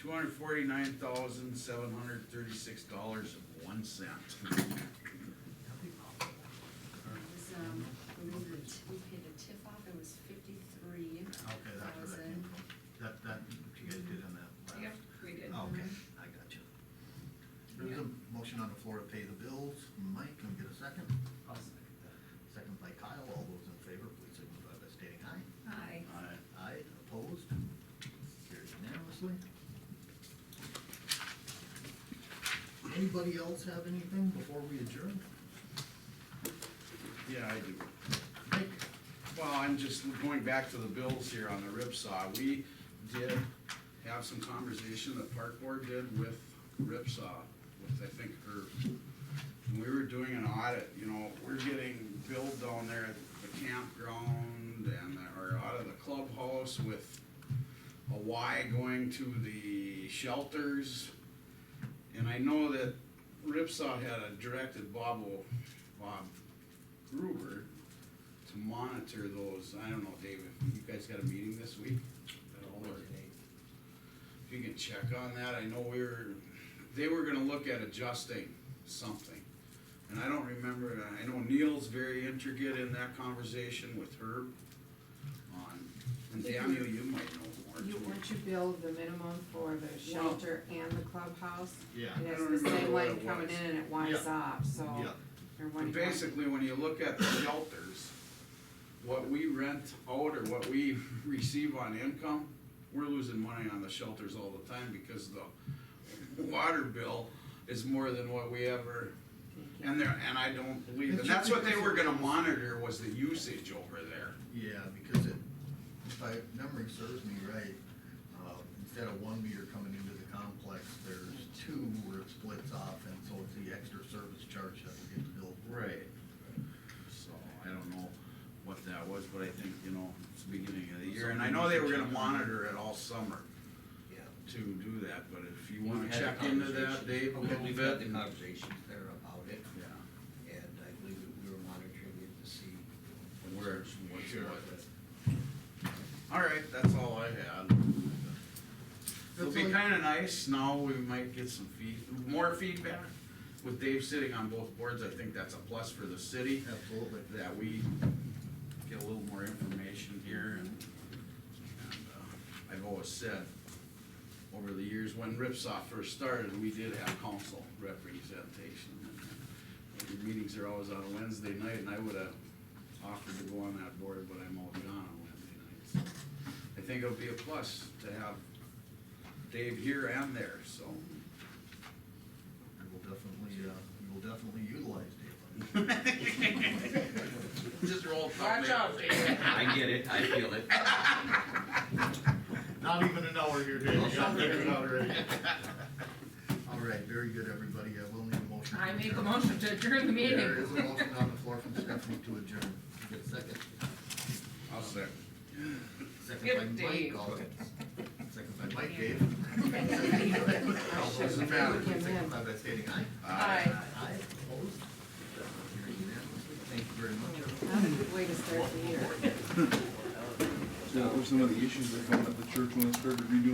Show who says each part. Speaker 1: two hundred forty-nine thousand, seven hundred thirty-six dollars and one cent. Uh,
Speaker 2: was, um, when we were, t- we paid the TIF off, it was fifty-three
Speaker 3: Okay, that's where that came
Speaker 2: thousand.
Speaker 3: from. That, that, you guys did on that last. Oh,
Speaker 4: Yep, we did.
Speaker 3: Okay, I got you. There's a motion on the floor to pay the bills. Mike, can we get a second?
Speaker 5: I'll second that.
Speaker 3: Second by Kyle. All those in favor, please signify by stating aye.
Speaker 4: Aye.
Speaker 1: Aye.
Speaker 3: Aye, opposed? Carried unanimously. Anybody else have anything before we adjourn?
Speaker 1: Yeah, I do.
Speaker 3: Mike?
Speaker 1: Well, I'm just going back to the bills here on the rip saw. We did have some conversation that Park Board did with rip saw, with I think her. When we were doing an audit, you know, we're getting billed down there at the campground and, or out of the clubhouse with a Y going to the shelters. And I know that Ripsaw had a directed Bob, O- Bob Gruber to monitor those, I don't know, David, you guys got a meeting this week? at all, or- If you can check on that, I know we were, they were gonna look at adjusting something. And I don't remember, I know Neil's very intricate in that conversation with Herb on, and Daniel, you might know more too.
Speaker 6: You, weren't you billed the minimum for the shelter and the clubhouse?
Speaker 3: Yeah.
Speaker 6: And
Speaker 1: I
Speaker 6: it's
Speaker 1: don't
Speaker 6: the
Speaker 1: remember
Speaker 6: same
Speaker 1: what
Speaker 6: line
Speaker 1: it
Speaker 6: coming
Speaker 1: was.
Speaker 6: in and it winds up, so.
Speaker 3: Yeah.
Speaker 6: Or one.
Speaker 1: But basically, when you look at the shelters, what we rent out or what we receive on income, we're losing money on the shelters all the time because the water bill is more than what we ever, and there, and I don't believe, and that's what they were gonna monitor was the usage over there.
Speaker 3: Yeah, because it, if I, memory serves me right, uh, instead of one meter coming into the complex, there's two where it splits off, and so it's the extra service charge that we get billed. for.
Speaker 1: Right. So, I don't know what that was, but I think, you know, it's the beginning of the year, and I know they were gonna monitor it all summer
Speaker 5: Yeah.
Speaker 1: to do that, but if you wanna check into that, Dave, a
Speaker 5: Okay,
Speaker 1: little
Speaker 5: we've had
Speaker 1: bit.
Speaker 5: the conversations there about it,
Speaker 1: Yeah,
Speaker 5: and I believe that we were monitoring it to see.
Speaker 1: where, it's- what's
Speaker 5: Sure.
Speaker 1: what. All right, that's all I had. It'll be kinda nice, now we might get some feed, more feedback. With Dave sitting on both boards, I think that's a plus for the city,
Speaker 3: Absolutely.
Speaker 1: that we get a little more information here and, and, uh, I've always said, over the years, when Ripsaw first started, we did have council representation. The Meetings are always on a Wednesday night, and I would have offered to go on that board, but I'm always gone on Wednesday nights. I think it'll be a plus to have Dave here and there, so.
Speaker 3: We will definitely, uh, we will definitely utilize Dave. on that.
Speaker 1: Just roll. Watch out, Dave.
Speaker 7: I get it, I feel it.
Speaker 3: Not even an hour here, Dave. You got figured out already. All right, very good, everybody. I will need a motion. to
Speaker 4: I make a
Speaker 3: adjourn.
Speaker 4: motion to adjourn the meeting.
Speaker 3: There is a motion on the floor from Stephanie to adjourn. Get a second.
Speaker 1: I'll second.
Speaker 3: Second by
Speaker 4: Give
Speaker 3: Mike.
Speaker 4: Dave.
Speaker 3: All- Second by Mike, Dave. All those in favor, please signify by stating aye.
Speaker 4: Aye.
Speaker 3: Aye, opposed? Carried unanimously. Thank you very much, everyone.
Speaker 6: That's a good way to start the year.
Speaker 8: Yeah, that were some of the issues that come up at the church when they started redoing